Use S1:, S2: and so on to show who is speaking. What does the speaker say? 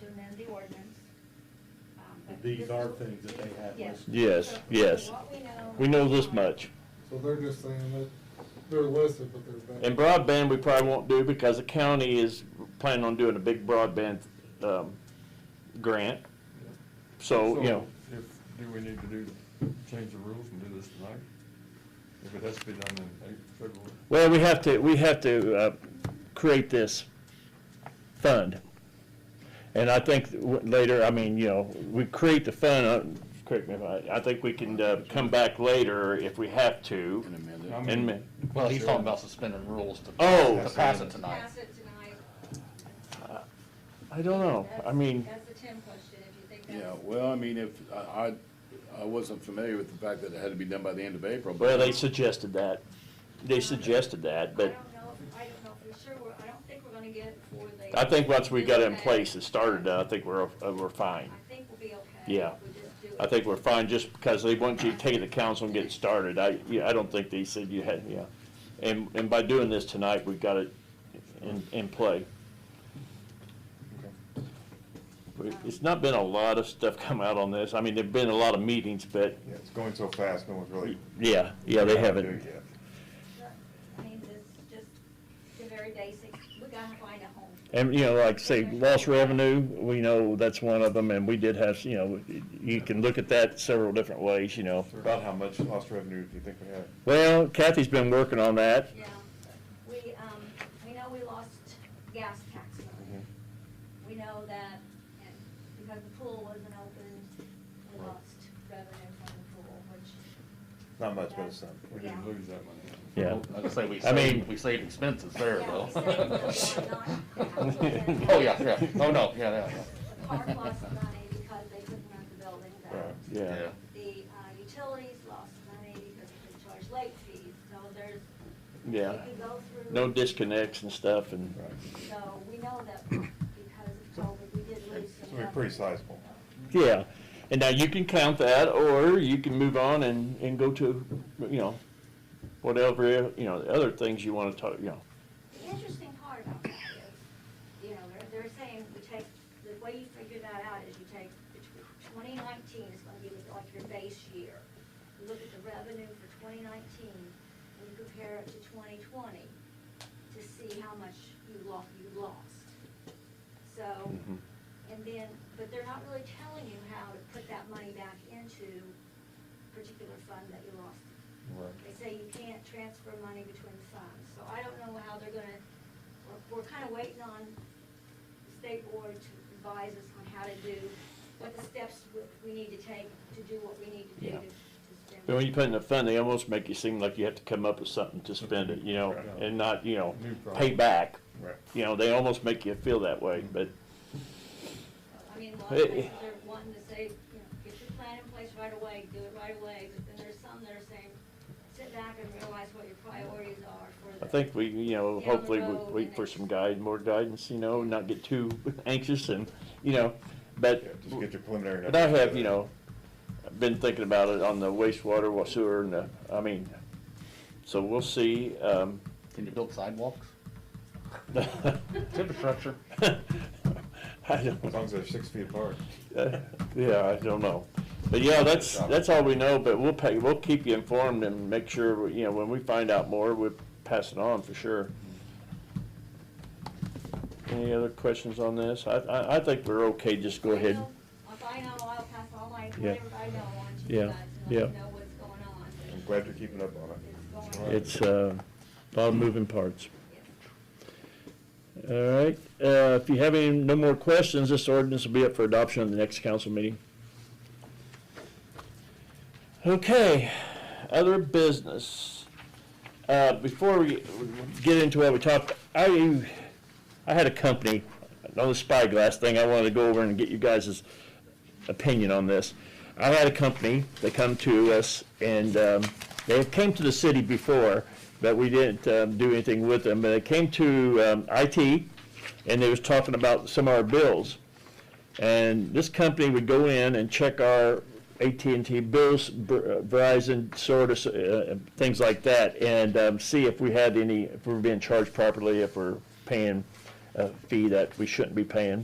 S1: to amend the ordinance. um, but
S2: These
S1: this
S2: are
S1: is-
S2: things that they have
S1: Yes.
S2: listed.
S3: Yes,
S1: So,
S3: yes.
S1: what we know-
S3: We know this much.
S4: So they're just saying that they're listed, but there's not.
S3: And broadband, we probably won't do because the county is planning on doing a big broadband, um, grant. So, you know,
S5: If, do we need to do, change the rules and do this tonight? If it has to be done in April, February?
S3: well, we have to, we have to, uh, create this fund. And I think w- later, I mean, you know, we create the fund, uh, correct me if I, I think we can, uh, come back later if we have to.
S6: And amend
S5: I
S6: it.
S5: mean,
S3: And ma-
S7: Well, he's talking about suspending rules to.
S3: Oh.
S7: To pass it tonight.
S8: Pass it tonight.
S3: I don't know. I
S8: That's-
S3: mean,
S8: That's the Tim question, if you think
S6: Yeah,
S8: that's.
S6: well, I mean, if, I, I- I wasn't familiar with the fact that it had to be done by the end of April. but-
S3: well, they suggested that. They suggested that,
S8: I
S3: but
S8: don't know, if- I don't know for sure, We're- I don't think we're gonna get it for the.
S3: I think once we got it in place and started, uh, I think we're, uh, we're
S8: I
S3: fine.
S8: think we'll be okay.
S3: Yeah.
S8: if we just do
S3: I
S8: it.
S3: think we're fine just because they want you to take the council and get it started. I, yeah, I don't think they said you had, yeah. And, and by doing this tonight, we got it in, in play. We- It's not been a lot of stuff come out on this. I mean, there've been a lot of meetings, but
S5: Yeah, it's going so fast, no one's really.
S3: yeah, yeah, they
S5: Do it
S3: haven't.
S5: yet.
S8: I mean, this is just the very basics, we gotta find a home.
S3: And, you know, like say, lost revenue, we know that's one of them, and we did have, you know, you can look at that several different ways, you know.
S5: About how much lost revenue do you think we have?
S3: Well, Kathy's been working on that.
S8: Yeah, we, um, we know we lost gas tax money.
S5: Mm-hmm.
S8: We know that, and because the pool wasn't open, we
S5: Right.
S8: lost revenue from the pool, which.
S5: Not much, but it's some.
S8: that's-
S5: We
S8: yeah.
S5: didn't lose that money.
S3: Yeah.
S7: I was gonna say, we
S3: I mean-
S7: saved, we saved expenses there,
S8: Yeah,
S7: though.
S8: we saved those on not-
S7: Oh, yeah, yeah, oh, no, yeah, yeah, yeah.
S8: The park lost money because they couldn't rent the building back.
S5: Right.
S3: Yeah.
S8: The, uh, utilities lost money because they charged late fees, so there's.
S3: Yeah.
S8: You could go through.
S3: No disconnects and stuff and,
S5: Right.
S8: So we know that because of COVID, we did lose some.
S5: So we're pretty sizable.
S3: yeah. And now you can count that or you can move on and, and go to, you know, whatever, you know, the other things you want to talk, you know.
S8: The interesting part about that is, you know, they're, they're saying we take, the way you figure that out is you take, twenty nineteen is gonna be like your base year. You look at the revenue for twenty nineteen, and you compare it to twenty twenty, to see how much you lost, you lost. So,
S3: Mhm.
S8: and then, but they're not really telling you how to put that money back into particular fund that you lost
S5: Right.
S8: they say you can't transfer money between funds, so I don't know how they're gonna, we're, we're kinda waiting on the state board to advise us on how to do, what the steps we, we need to take to do what we need to do
S3: Yeah.
S8: to, to spend.
S3: But when you put in a fund, they almost make you seem like you have to come up with something to spend it, you know,
S5: Right.
S3: and not, you know,
S5: New
S3: pay
S5: product.
S3: back.
S5: Right.
S3: You know, they almost make you feel that way, but,
S8: I mean, a lot of
S3: Hey.
S8: places are wanting to say, you know, get your plan in place right away, do it right away, but then there's some that are saying, sit back and realize what your priorities are for the.
S3: I think we, you
S8: Down
S3: know,
S8: the
S3: hopefully we
S8: road
S3: wait
S8: and
S3: for
S8: it's-
S3: some guide, more guidance, you know, not get too anxious and, you know, but.
S5: Yeah, Just get your preliminary.
S3: But I
S5: numbers
S3: have,
S5: together.
S3: you know, been thinking about it on the wastewater, wa- sewer, and the, I mean, so we'll see, um.
S7: Can you build sidewalks?
S3: Infrastructure. I
S5: As
S3: don't,
S5: long as they're six feet apart.
S3: uh, yeah, I don't know. But yeah, that's, that's all we know, but we'll pay, we'll keep you informed and make sure, you know, when we find out more, we'll pass it on for sure. Any other questions on this? I, I, I think we're okay, just go
S8: I
S3: ahead.
S8: know- If I know, I'll pass all my,
S3: Yeah.
S8: whatever I know on to
S3: Yeah,
S8: you guys, and let you
S3: yeah.
S8: know what's going on.
S5: I'm glad you're keeping up on it.
S8: It's going on.
S3: It's, uh, a lot of moving parts.
S8: Yes.
S3: All right, uh, if you have any, no more questions, this ordinance will be up for adoption at the next council meeting. Okay, other business. Uh, before we get into what we talked, I, I had a company, on the spyglass thing, I wanted to go over and get you guys' opinion on this. I had a company, they come to us, and um, they came to the city before, but we didn't um, do anything with them. But they came to um, IT, and they was talking about some of our bills. And this company would go in and check our AT&T bills, Ver- uh, Verizon, sort of, uh, things like that, and um, see if we had any, if we were being charged properly, if we're paying a fee that we shouldn't be paying.